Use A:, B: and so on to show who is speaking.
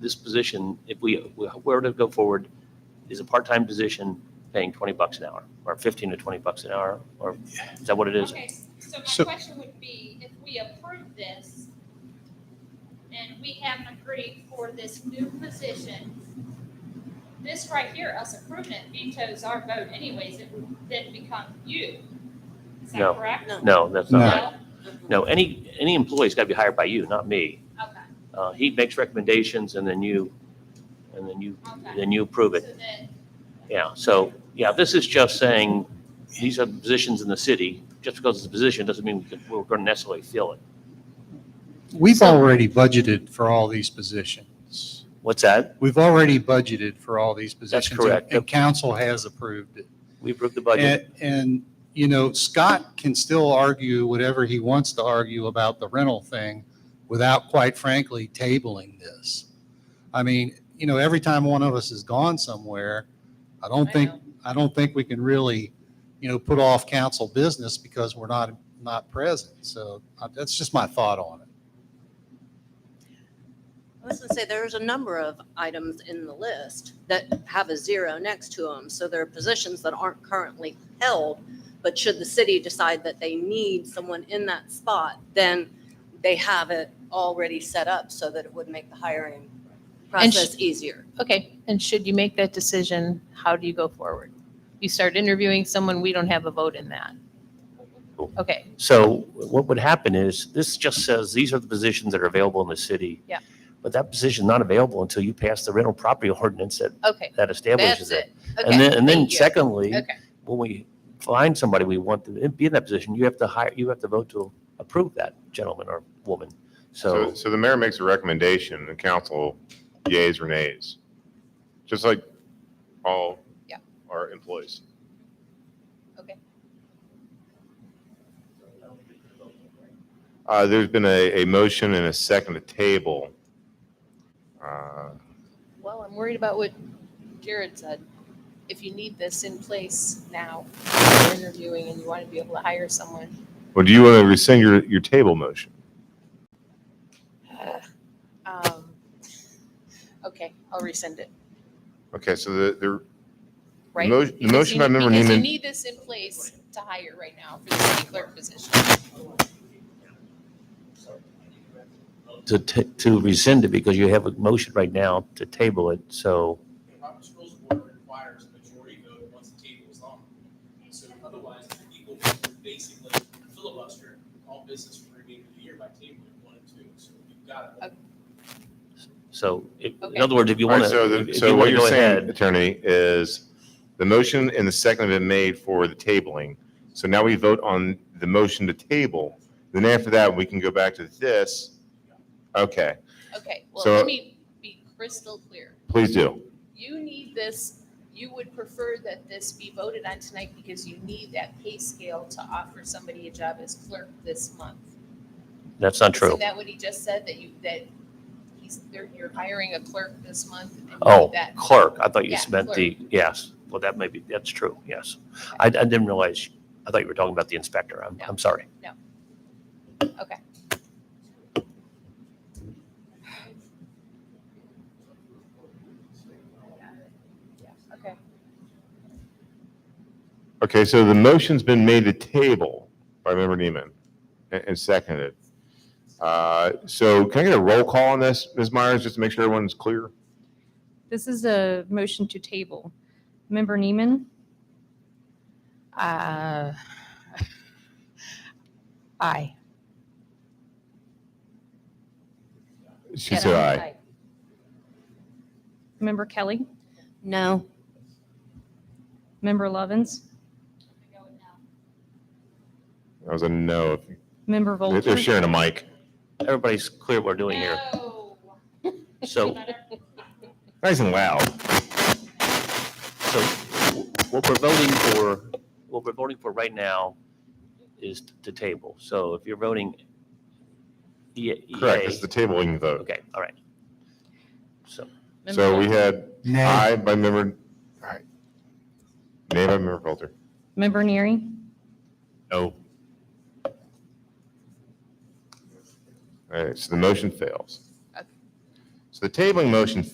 A: this position, if we we were to go forward, is a part-time position paying 20 bucks an hour, or 15 to 20 bucks an hour, or is that what it is?
B: Okay, so
C: So-
B: my question would be, if we approve this and we haven't agreed for this new position, this right here, us approving it vetoes our vote anyways, it would then become you. Is
A: No.
B: that correct?
A: No, that's not
C: No.
A: right. No, any, any employee's got to be hired by you, not me.
B: Okay,
A: Uh, He makes recommendations, and then you, and then you,
B: okay.
A: then you approve it.
B: So then,
A: Yeah, so, yeah, this is just saying, these are positions in the city. Just because it's a position doesn't mean we can- we're going to necessarily fill it.
C: We've
B: So-
C: already budgeted for all these positions.
A: What's that?
C: We've already budgeted for all these
A: That's
C: positions.
A: correct.
C: And council has approved it.
A: We approved the budget.
C: And- And, you know, Scott can still argue whatever he wants to argue about the rental thing without, quite frankly, tabling this. I mean, you know, every time one of us has gone somewhere, I don't
B: I
C: think,
B: know.
C: I don't think we can really, you know, put off council business because we're not, not present. So uh, that's just my thought on it.
D: I was gonna say, there's a number of items in the list that have a zero next to them, so there are positions that aren't currently held. But should the city decide that they need someone in that spot, then they have it already set up so that it would make the hiring
E: And sh-
D: process easier.
E: Okay, and should you make that decision, how do you go forward? You start interviewing someone, we don't have a vote in that. Okay,
A: So what would happen is, this just says, these are the positions that are available in the city.
E: Yeah.
A: But that position's not available until you pass the rental property ordinance that,
E: okay,
A: that establishes
E: that's
A: it.
E: it. Okay,
A: And then, and then
E: thank you.
A: secondly,
E: Okay,
A: when we find somebody we want to be in that position, you have to hire, you have to vote to approve that gentleman or woman.
F: So,
A: So,
F: so the mayor makes a recommendation, the council yays or nays, just like all
E: Yeah.
F: our employees.
E: Okay.
F: Uh, There's been a, a motion and a second to table. Uh,
E: well, I'm worried about what Jared said. If you need this in place now, you're interviewing and you want to be able to hire someone.
F: Well, do you want to rescind your, your table motion?
E: um, Okay, I'll resend it,
F: Okay, so the, the,
E: right?
F: mo- the
E: Because
F: motion
E: you-
F: by member
E: because you
F: Neiman,
E: need this in place to hire right now for the city clerk position.
A: to, ta- to rescind it, because you have a motion right now to table it, so.
G: Robert's Rules of Order requires a majority vote once the table is on. So otherwise, the people would basically filibuster all business for the remainder of the year by tabling one and two. So you've got to
A: So if-
E: Okay.
A: in other words, if you
F: all right,
A: want
F: so,
A: to.
F: the- so what you're saying, attorney, is the motion and the second have been made for the tabling. So now we vote on the motion to table. Then after that, we can go back to this. Okay,
E: Okay, well,
F: So-
E: let me be crystal clear.
F: please do.
E: You need this, you would prefer that this be voted on tonight because you need that pay scale to offer somebody a job as clerk this month.
A: That's not true.
E: Isn't that what he just said, that you, that he's, they're- you're hiring a clerk this month? and you need
A: Oh,
E: that?
A: clerk, I thought you
E: Yeah,
A: meant the, yes, well, that may be, that's true, yes. I, I didn't realize, I thought you were talking about the inspector, I'm,
E: No.
A: I'm sorry.
E: Okay,
F: Okay, so the motion's been made to table by member Neiman and, and seconded. Uh, So can I get a roll call on this, Ms. Myers, just to make sure everyone's clear?
H: This is a motion to table. Member Neiman,
E: uh, aye.
F: She said aye.
H: Member Kelly,
D: No.
H: Member Lovins,
B: I'm going now.
F: That was a no.
H: Member
F: They're- They're
H: Volter,
F: sharing a mic.
A: Everybody's clear what we're doing here.
B: No.
A: So,
F: Nice and loud.
A: so what we're voting for, what we're voting for right now is to table. So if you're voting E- EA.
F: Correct, it's the tabling vote.
A: Okay, all right. So,
F: So we had
C: Nay.
F: aye by member, aye. Nay by member Coulter.
H: Member Neary,
F: No. All right, so the motion fails.
E: Okay.
F: So the tabling motion